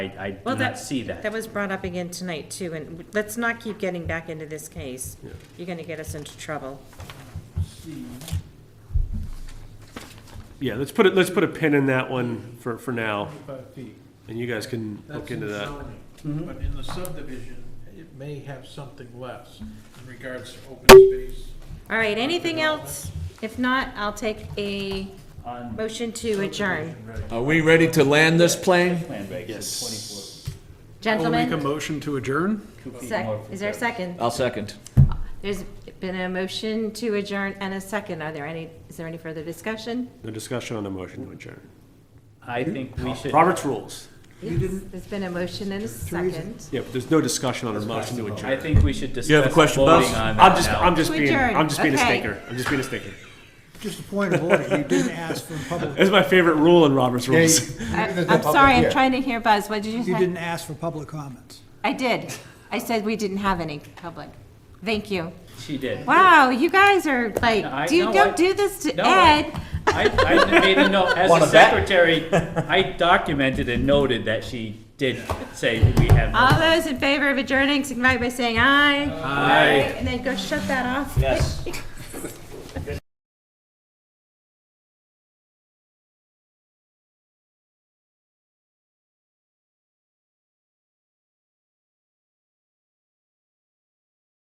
I, I do Well, not that- see that. That was brought up again tonight too, and let's not keep getting back into this case. You're gonna get us into trouble. Yeah, let's put it, let's put a pin in that one for, for now, Twenty-five feet. and you guys can That's look in into that. zoning. But in the subdivision, it may have something less in regards to open space. All right, anything else? If not, I'll take a On motion to adjourn. Are we ready to land this plane? plan regs, it's I'll make a Gentlemen, motion to adjourn. 24 feet sec, more from is there a ground. second? I'll second. There's been a motion to adjourn and a second. Are there any, is there any further discussion? No discussion on the motion to adjourn. I think we should. Robert's rules. Yes, There's been a motion and a second. Yeah, but there's no discussion on a motion to adjourn. I think we should discuss. You have a question, Buzz? voting on I'm that just, now. I'm just To being, adjourn, I'm just being a okay. stinker. I'm just being a stinker. Just a point of order, you didn't ask for public, That's my favorite rule in Robert's rules. I- I'm sorry, I'm trying to hear Buzz. What did you you say? didn't ask for public comments. I did. I said we didn't have any public. Thank you. She did. Wow, you guys are I- like, do you no, don't I- do this to no, I- Ed? I, I made a note, as Wanna a bet? secretary, I documented and noted that she did say we have. no- All those in favor of adjourning, signify by saying aye. Aye. And then go shut that off. Yes.